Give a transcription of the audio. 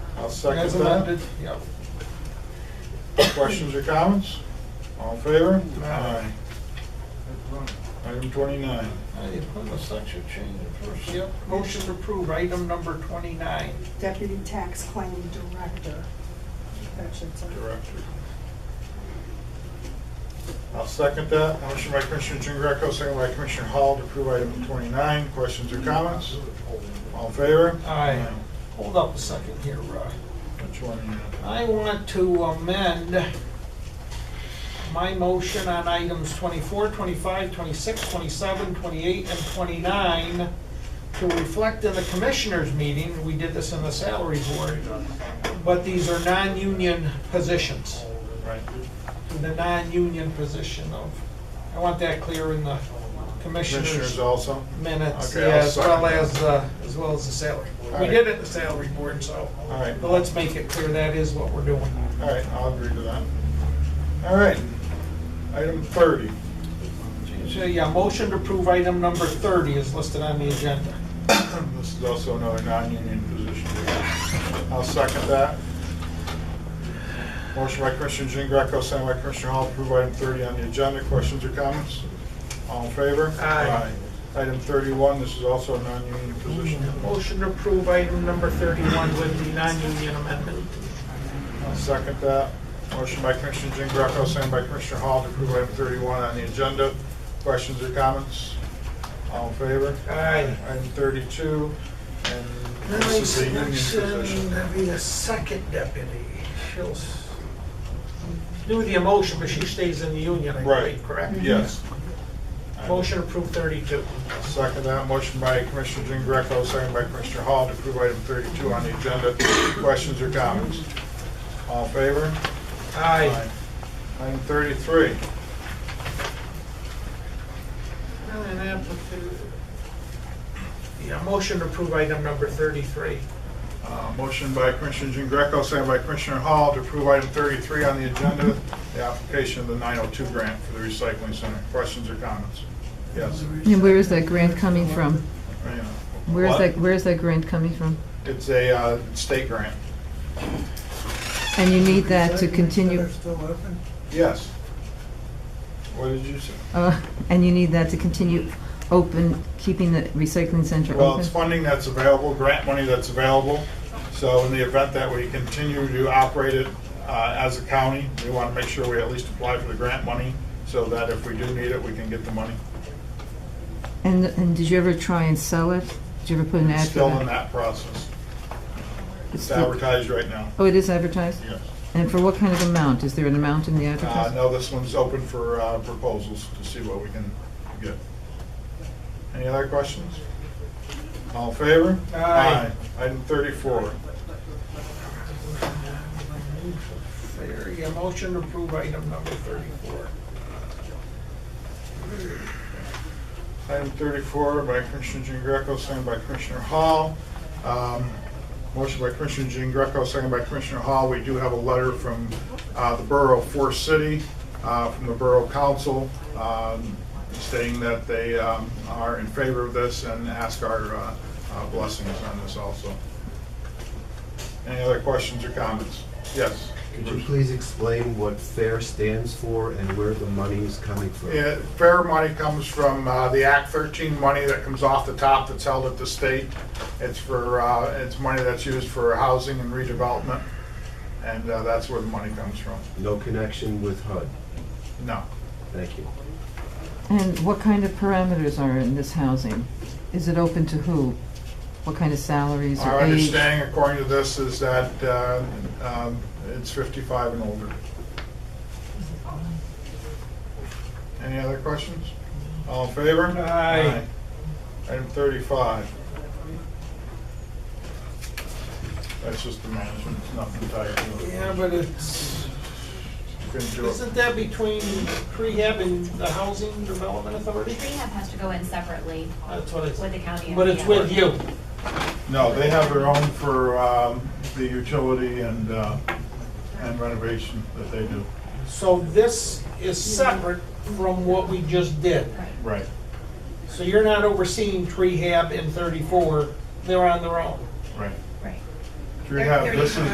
I'll second As amended, that. yep. Questions or comments? All in favor? Aye. Item twenty-nine. Aye. Unless that's your change in first. Yep, motion to approve item number twenty-nine. Deputy Tax Claim Director. That should say. Director. I'll second that. Motion by Commissioner Jean Greco, second by Commissioner Hall to approve item twenty-nine. Questions or comments? All in favor? Aye. Hold up a second here, Rod. Which one? are I want to amend my motion on items 24, 25, 26, 27, 28, and 29 to reflect in the commissioners' meeting, we did this in the salary board, but these are non-union positions, you- Right. the non-union position of, I want that clear in the Commissioners commissioners' also? minutes, Okay, I'll yeah, as well second as, uh, as well as the salary board. We Alright. did it in the salary board, so, All right. but let's make it clear that is what we're doing. All right, I'll agree to that. All right, item thirty. So, yeah, motion to approve item number 30 is listed on the agenda. This is also another non-union position. I'll second that. Motion by Commissioner Jean Greco, second by Commissioner Hall, approve item thirty on the agenda. Questions or comments? All in favor? Aye. Aye. Item thirty-one, this is also a non-union position. Motion to approve item number 31 with the non-union amendment. I'll second that. Motion by Commissioner Jean Greco, second by Commissioner Hall, to approve item thirty-one on the agenda. Questions or comments? All in favor? Aye. Item thirty-two, and this is a union position. be the second deputy. She'll s- do the emotion, but she stays in the union, I Right. believe, correct? Yes. Motion to approve 32. Second that, motion by Commissioner Jean Greco, second by Commissioner Hall to approve item 32 on the agenda. Questions or comments? All in favor? Aye. Item 33, And applica- Yeah, motion to approve item number 33. uh, motion by Commissioner Jean Greco, second by Commissioner Hall to approve item 33 on the agenda, the application of the 902 grant for the recycling center. Questions or comments? Yes. And where is that grant coming from? Rena. Where is What? that, where is that grant coming from? It's a uh, state grant. And you need that to continue, Yes. What did you say? uh, and you need that to continue open, keeping the recycling center Well, it's open? funding that's available, grant money that's available. So in the event that we continue to operate it uh, as a county, we want to make sure we at least apply for the grant money so that if we do need it, we can get the money. And, and did you ever try and sell it? Did you ever put an ad for Still in that? that process. It's It's still- advertised right now. Oh, it is advertised? Yes. And for what kind of amount? Is there an amount in the Uh, advertisement? No, this one's open for uh, proposals to see what we can get. Any other questions? All in favor? Aye. Item 34. There, yeah, motion to approve item number 34. Item 34 by Commissioner Jean Greco, second by Commissioner Hall. Um, Motion by Commissioner Jean Greco, second by Commissioner Hall. We do have a letter from uh, the Borough of Forest City, uh, from the Borough Council, um, stating that they um, are in favor of this and ask our uh, uh, blessings on this also. Any other questions or comments? Yes. Could you please explain what FAIR stands for and where the money is coming from? Yeah, fair money comes from uh, the Act 13 money that comes off the top that's held at the state. It's for, uh, it's money that's used for housing and redevelopment, and uh, that's where the money comes from. No connection with HUD. No. Thank you. And what kind of parameters are in this housing? Is it open to who? What kind of salaries or Our age? understanding according to this is that uh, um, it's 55 and older. Any other questions? All in favor? Aye. Aye. Item 35. That's just the management, it's nothing tied to it. Yeah, but it's, Couldn't do it. isn't that between prehab and the housing development authority? Rehab has to go in separately That's what it's, with the county. and but it's the- with you. No, they have their own for um, the utility and uh, and renovation that they do. So this is separate from what we just did. Right. Right. So you're not overseeing prehab in 34, they're on their own. Right. Right. Rehab, this is